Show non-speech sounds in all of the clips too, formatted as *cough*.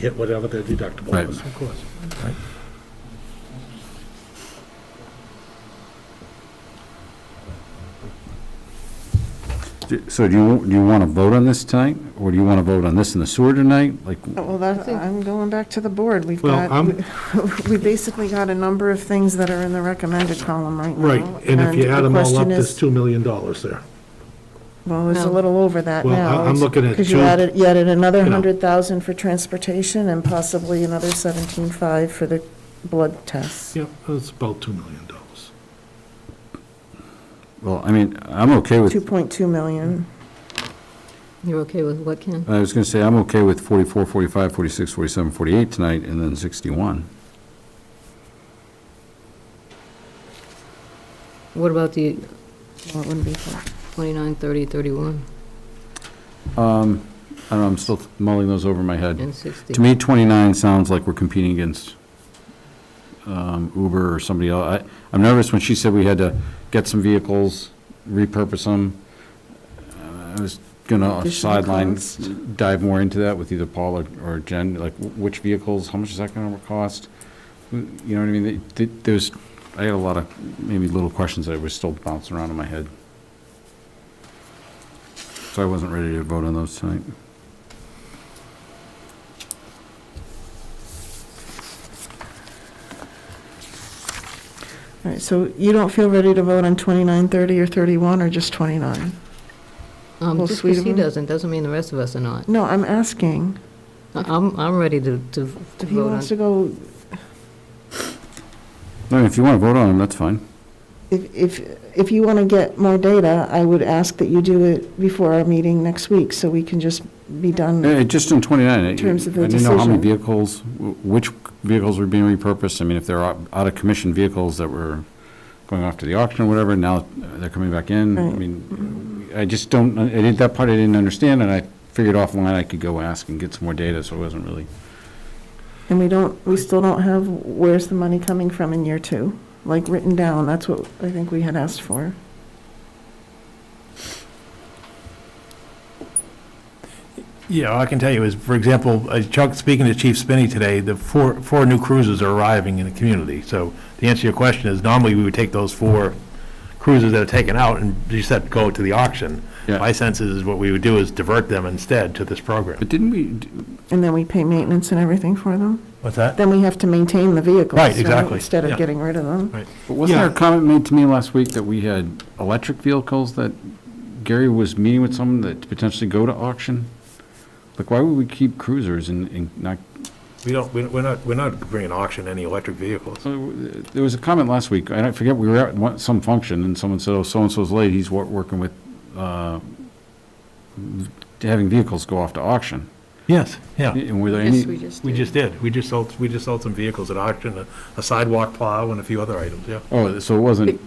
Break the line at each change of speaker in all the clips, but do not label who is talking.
hit whatever their deductible
Right.
was, of course.
Do- So do you, do you want to vote on this tonight, or do you want to vote on this in the sewer tonight? Like,
Oh, Well, that, I'm going back to the board. We've
Well,
got,
I'm-
*laughs* we basically got a number of things that are in the recommended column right now.
Right, and if you
the
add them all up,
question
there's
is-
$2 million there.
Well, it's a
No.
little over that now.
Well, I- I'm
It's-
looking at
Because you
two-
added, you added another
you know.
100,000 for transportation and possibly another 17.5 for the blood tests.
Yep, it's about $2 million.
well, I mean, I'm okay with,
2.2 million.
You're okay with what, Ken?
I was going to say, I'm okay with 44, 45, 46, 47, 48 tonight, and then 61.
What about the uh,
Well, it wouldn't be for-
29, 30, 31,
I don't know, I'm still mulling those over in my head.
and 60?
To me, 29 sounds like we're competing against um, Uber or somebody else. I, I'm nervous when she said we had to get some vehicles, repurpose them. Uh, I was going to
Additional
sideline,
cost.
dive more into that with either Paul or- or Jen, like wh- which vehicles, how much is that going to cost? You know what I mean? Th- th- There's, I had a lot of maybe little questions that were still bouncing around in my head. So I wasn't ready to vote on those tonight.
All right, so you don't feel ready to vote on 29, 30, or 31, or just 29?
Um,
Well,
Just
sweet
because
of
he
him.
doesn't, doesn't mean the rest of us are not.
No, I'm asking.
I- I'm, I'm ready to, to to
If he
vote
wants to
on.
go,
I mean, if you want to vote on them, that's fine.
if, if if you want to get more data, I would ask that you do it before our meeting next week, so we can just be done.
Eh, Just in 29, I I
Hmm. terms of the
didn't know how many
decision.
vehicles, wh- which vehicles were being repurposed. I mean, if they're out of commission vehicles that were going off to the auction or whatever, now uh, they're coming back in. I
Right.
mean, I just don't, I didn't, that part I didn't understand, and I figured offline I could go ask and get some more data, so it wasn't really.
And we don't, we still don't have where's the money coming from in year two, like written down. That's what I think we had asked for.
Yeah, all I can tell you is, for example, uh, Chuck, speaking to Chief Spinney today, the four, four new cruisers are arriving in the community. So the answer to your question is normally we would take those four cruisers that are taken out and you said go to the auction.
Yeah.
My sense is what we would do is divert them instead to this program.
But didn't we, d-
And then we pay maintenance and everything for them.
What's that?
Then we have to maintain the vehicles.
Right, exactly.
Instead of
Yeah.
getting rid of them.
Right.
but wasn't
Yeah.
there a comment made to me last week that we had electric vehicles that Gary was meeting with someone that potentially go to auction? Like, why would we keep cruisers and- and not
We don't, we- we're not, we're not bringing auction any electric vehicles.
So uh, there was a comment last week, and I forget, we were at one- some function, and someone said, oh, so-and-so's late, he's wor- working with, uh, having vehicles go off to auction.
Yes, yeah.
And were there
Yes,
any,
we just
We
did.
just did. We just sold, we just sold some vehicles at auction, a- a sidewalk plow and a few other items, yeah.
oh, so it wasn't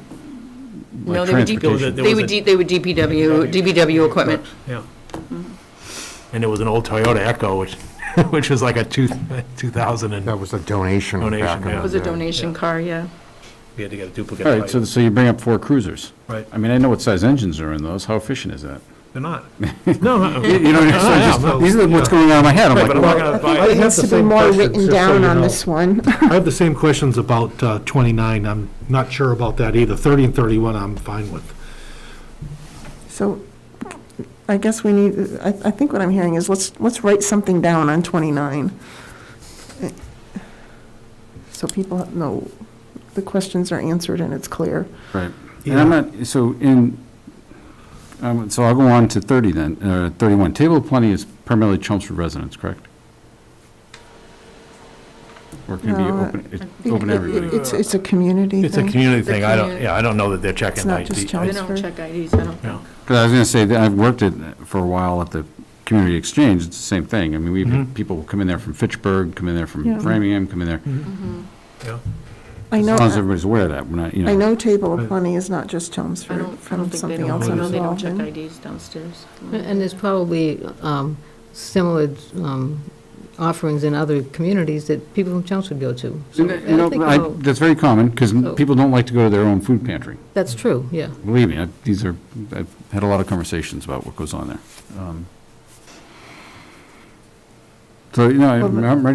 No,
like
they were deep-
transportation?
There was
They were,
a-
D- they were DPW, DPW equipment.
Yeah. Mm-hmm. And it was an old Toyota Echo, which, *laughs* which was like a two, 2000 and,
That was a donation
Donation,
back in
yeah.
It
the
was a
day.
donation
Yeah.
car, yeah.
we had to get a duplicate.
All right, so,
plate.
so you bring up four cruisers.
Right.
I mean, I know what size engines are in those, how efficient is that?
They're not. No, no.
You
*laughs*
you know, what I'm saying?
yeah,
Just-
no.
these are what's going on in my head, I'm
Right,
like,
but I'm
well,
not gonna buy
I
it.
It
have
needs
the
to be
same
more
questions,
written
just so
down
you
on
know.
this one.
I have the same questions about uh, 29, I'm not sure about that either. 30 and 31, I'm fine with.
So I guess we need, I, I think what I'm hearing is let's, let's write something down on 29. So people know, the questions are answered and it's clear.
Right. And I'm not, so in, um, so I'll go on to 30 then, uh, 31. Table of Plenty is primarily Chelmsford residents, correct? Or can it be
No,
open, it's
It-
open to
it-
everybody?
It's, it's a community
It's a
thing.
community thing. I don't,
community.
yeah, I don't know that they're checking.
It's not
IDs.
just
They
Chelmsford.
don't check IDs, I don't
Yeah.
think.
Because I was going to say, that I've worked at, for a while at the Community Exchange, it's the same thing. I mean, we've had people come in there from Fitchburg, come in there from
Yeah.
Framingham, come in there.
Yeah.
I
As
know,
long as everybody's aware of that, we're not, you know.
I know Table of Plenty is not just Chelmsford.
I don't, I
from
don't think they
something
don't,
else
I
I'm
know they don't
involved
check
in.
IDs downstairs.
And there's probably um, similar um, offerings in other communities that people from Chelmsford go to. So
You
I
know,
think
I-
we'll-
That's very common, because
Oh.
people don't like to go to their own food pantry.
That's true, yeah.
Believe me, I- these are, I've had a lot of conversations about what goes on there. Um, So, you know,
Well, but-
I'm ready